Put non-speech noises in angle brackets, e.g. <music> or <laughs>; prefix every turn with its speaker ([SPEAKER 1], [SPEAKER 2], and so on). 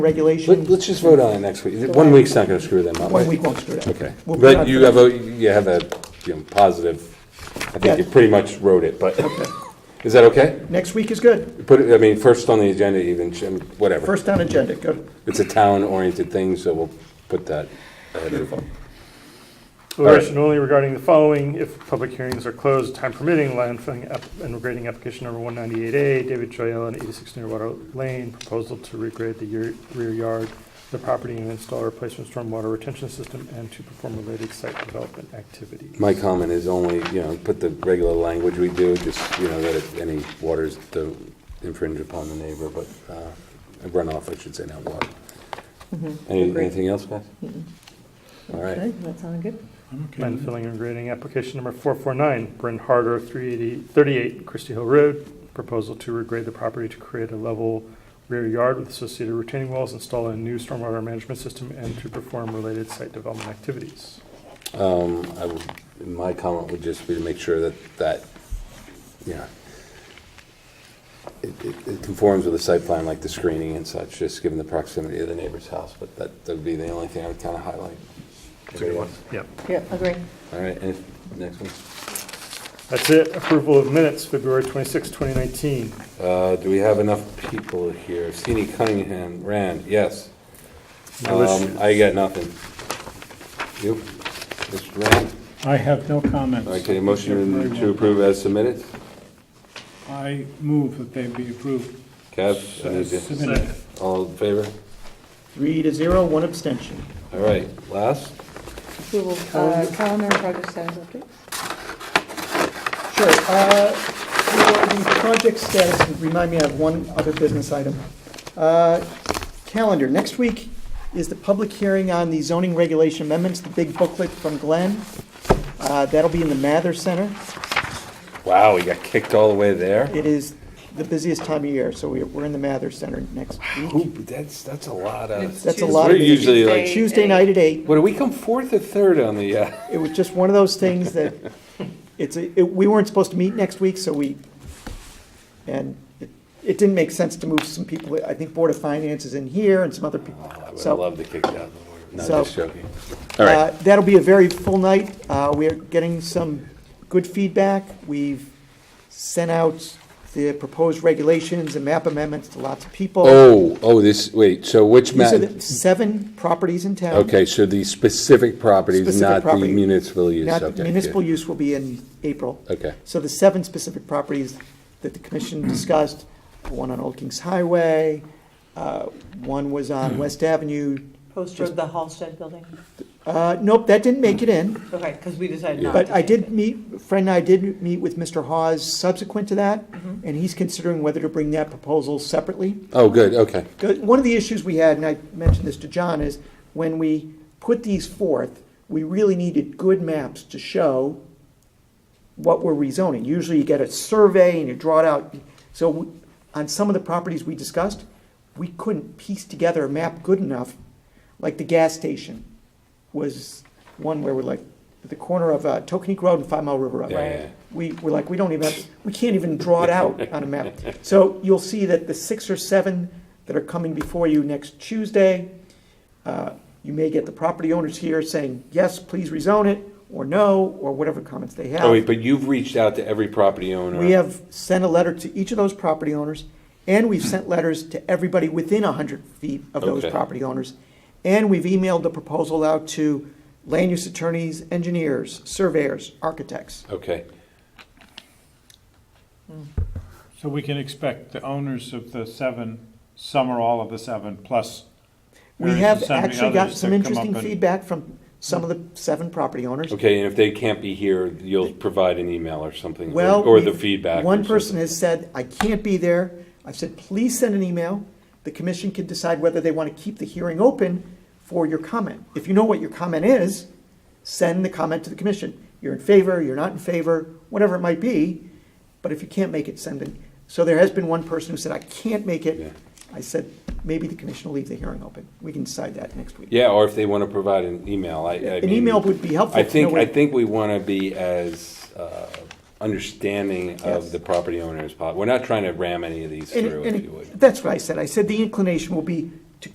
[SPEAKER 1] regulation.
[SPEAKER 2] Let, let's just vote on it next week. One week's not gonna screw them up.
[SPEAKER 1] One
[SPEAKER 2] right?
[SPEAKER 1] week won't screw it up.
[SPEAKER 2] Okay.
[SPEAKER 1] We'll put it
[SPEAKER 2] But
[SPEAKER 1] on
[SPEAKER 2] you
[SPEAKER 1] for
[SPEAKER 2] have a, you have a, you know, positive, I think you
[SPEAKER 1] Yeah.
[SPEAKER 2] pretty much wrote it, but, <laughs> is that okay?
[SPEAKER 1] Next week is good.
[SPEAKER 2] Put it, I mean, first on the agenda even, Jim, whatever.
[SPEAKER 1] First on agenda, good.
[SPEAKER 2] It's a town-oriented thing, so we'll put that ahead of
[SPEAKER 3] Deliberation only regarding the following, if public hearings are closed, time permitting, landfilling app- and regrading application number 198A, David Joyelle and 86 Nearwater Lane, proposal to regrade the year- rear yard, of the property and install a replacement stormwater retention system, and to perform related site development activities.
[SPEAKER 2] My comment is only, you know, put the regular language we do, just, you know, that if any waters don't infringe upon the neighbor, but uh, runoff, I should say, not water. Any-
[SPEAKER 1] Agree.
[SPEAKER 2] Anything else, guys? All right.
[SPEAKER 1] Okay.
[SPEAKER 4] That sounded good.
[SPEAKER 3] Landfilling and regrading application number 449, Bryn Harder, 380 38 Christie Hill Road, proposal to regrade the property to create a level rear yard with associated retaining walls, install a new stormwater management system, and to perform related site development activities.
[SPEAKER 2] Um, I would, my comment would just be to make sure that, that, you know, it, it- it conforms with the site plan, like the screening and such, just given the proximity of the neighbor's house, but that, that'd be the only thing I would kind of highlight.
[SPEAKER 3] Yep.
[SPEAKER 4] Yeah, agree.
[SPEAKER 2] All right, and next one.
[SPEAKER 3] That's it. Approval of minutes, February 26, 2019.
[SPEAKER 2] Uh, do we have enough people here? Sini Cunningham, Rand, yes.
[SPEAKER 3] No
[SPEAKER 2] Um, I got nothing. You, Mr. Rand?
[SPEAKER 5] I have no comments.
[SPEAKER 2] Okay, motion to approve as submitted?
[SPEAKER 5] I move that they be approved.
[SPEAKER 2] Kev? and
[SPEAKER 5] as
[SPEAKER 2] Adrian.
[SPEAKER 5] submitted.
[SPEAKER 2] All in favor?
[SPEAKER 1] Three to zero, one abstention.
[SPEAKER 2] All right, last?
[SPEAKER 4] Approval, uh, calendar and project status update.
[SPEAKER 1] Sure. uh, for The project status, remind me, I have one other business item. Uh, Calendar, next week is the public hearing on the zoning regulation amendments, the big booklet from Glenn. Uh, That'll be in the Mather Center.
[SPEAKER 2] Wow, we got kicked all the way there?
[SPEAKER 1] It is the busiest time of year, so we- we're in the Mather Center next
[SPEAKER 2] Ooh,
[SPEAKER 1] week.
[SPEAKER 2] that's, that's a lot of,
[SPEAKER 1] That's a lot of.
[SPEAKER 2] We're usually like-
[SPEAKER 4] Tuesday
[SPEAKER 1] Tuesday night at eight.
[SPEAKER 2] what, do we come fourth or third on the, uh?
[SPEAKER 1] It was just one of those things that, it's, a- it- we weren't supposed to meet next week, so we, and it- it didn't make sense to move some people, I think Board of Finance is in here and some other people.
[SPEAKER 2] I would
[SPEAKER 1] So-
[SPEAKER 2] love to kick down the door. No,
[SPEAKER 1] So-
[SPEAKER 2] just joking. All right.
[SPEAKER 1] Uh, That'll be a very full night. Uh, We are getting some good feedback. We've sent out the proposed regulations and map amendments to lots of people.
[SPEAKER 2] Oh, oh, this, wait, so which
[SPEAKER 1] These
[SPEAKER 2] map?
[SPEAKER 1] are the seven properties in town.
[SPEAKER 2] Okay, so the specific properties,
[SPEAKER 1] Specific
[SPEAKER 2] not the
[SPEAKER 1] property.
[SPEAKER 2] municipal use,
[SPEAKER 1] Not-
[SPEAKER 2] okay. good.
[SPEAKER 1] Municipal use will be in April.
[SPEAKER 2] Okay,
[SPEAKER 1] So the seven specific properties that the commission discussed, one on Old Kings Highway, uh, one was on West Avenue.
[SPEAKER 6] Poster of the Halsted building?
[SPEAKER 1] Uh, Nope, that didn't make it in,
[SPEAKER 6] Okay, because we decided not to.
[SPEAKER 1] but I
[SPEAKER 6] take
[SPEAKER 1] did
[SPEAKER 6] it.
[SPEAKER 1] meet, Fred and I did meet with Mr. Hawes subsequent to that, and he's considering whether to bring that proposal separately.
[SPEAKER 2] oh, good, okay,
[SPEAKER 1] Good. One of the issues we had, and I mentioned this to John, is when we put these forth, we really needed good maps to show what we're rezoning. Usually you get a survey and you draw it out. So we- on some of the properties we discussed, we couldn't piece together a map good enough. Like the gas station was one where we're like, at the corner of uh, Tokenique Road and Five Mile River Road.
[SPEAKER 2] Yeah, yeah, yeah.
[SPEAKER 1] We were like, we don't even, have- we can't even draw it
[SPEAKER 2] <laughs>
[SPEAKER 1] out on a map. So you'll see that the six or seven that are coming before you next Tuesday, uh, you may get the property owners here saying, yes, please rezone it, or no, or whatever comments they have.
[SPEAKER 2] Oh, wait, but you've reached out to every property owner?
[SPEAKER 1] We have sent a letter to each of those property owners, and we've sent letters to everybody within 100 feet of those
[SPEAKER 2] Okay.
[SPEAKER 1] property owners. And we've emailed the proposal out to land use attorneys, engineers, surveyors, architects.
[SPEAKER 2] Okay,
[SPEAKER 5] So we can expect the owners of the seven, some or all of the seven, plus.
[SPEAKER 1] We
[SPEAKER 5] various
[SPEAKER 1] have
[SPEAKER 5] and sundry
[SPEAKER 1] actually gotten
[SPEAKER 5] others
[SPEAKER 1] some
[SPEAKER 5] to come
[SPEAKER 1] interesting
[SPEAKER 5] up and-
[SPEAKER 1] feedback from some of the seven property owners.
[SPEAKER 2] okay, and if they can't be here, you'll provide an email or something? or-
[SPEAKER 1] Well.
[SPEAKER 2] Or the
[SPEAKER 1] we've-
[SPEAKER 2] feedback? or
[SPEAKER 1] One person
[SPEAKER 2] something.
[SPEAKER 1] has said, I can't be there. I've said, please send an email. The commission can decide whether they want to keep the hearing open for your comment. If you know what your comment is, send the comment to the commission. You're in favor, you're not in favor, whatever it might be. But if you can't make it, send it. So there has been one person who said, I can't make
[SPEAKER 2] Yeah.
[SPEAKER 1] it. I said, maybe the commission will leave the hearing open. We can decide that next week.
[SPEAKER 2] Yeah, or if they want to provide an email, I, I
[SPEAKER 1] An
[SPEAKER 2] mean-
[SPEAKER 1] email would be helpful
[SPEAKER 2] I
[SPEAKER 1] to
[SPEAKER 2] think,
[SPEAKER 1] know
[SPEAKER 2] I
[SPEAKER 1] what-
[SPEAKER 2] think we want to be as uh, understanding
[SPEAKER 1] Yes.
[SPEAKER 2] of the property owner as possible. We're not trying to ram any of these
[SPEAKER 1] And-
[SPEAKER 2] through,
[SPEAKER 1] and
[SPEAKER 2] if you would.
[SPEAKER 1] That's what I said. I said the inclination will be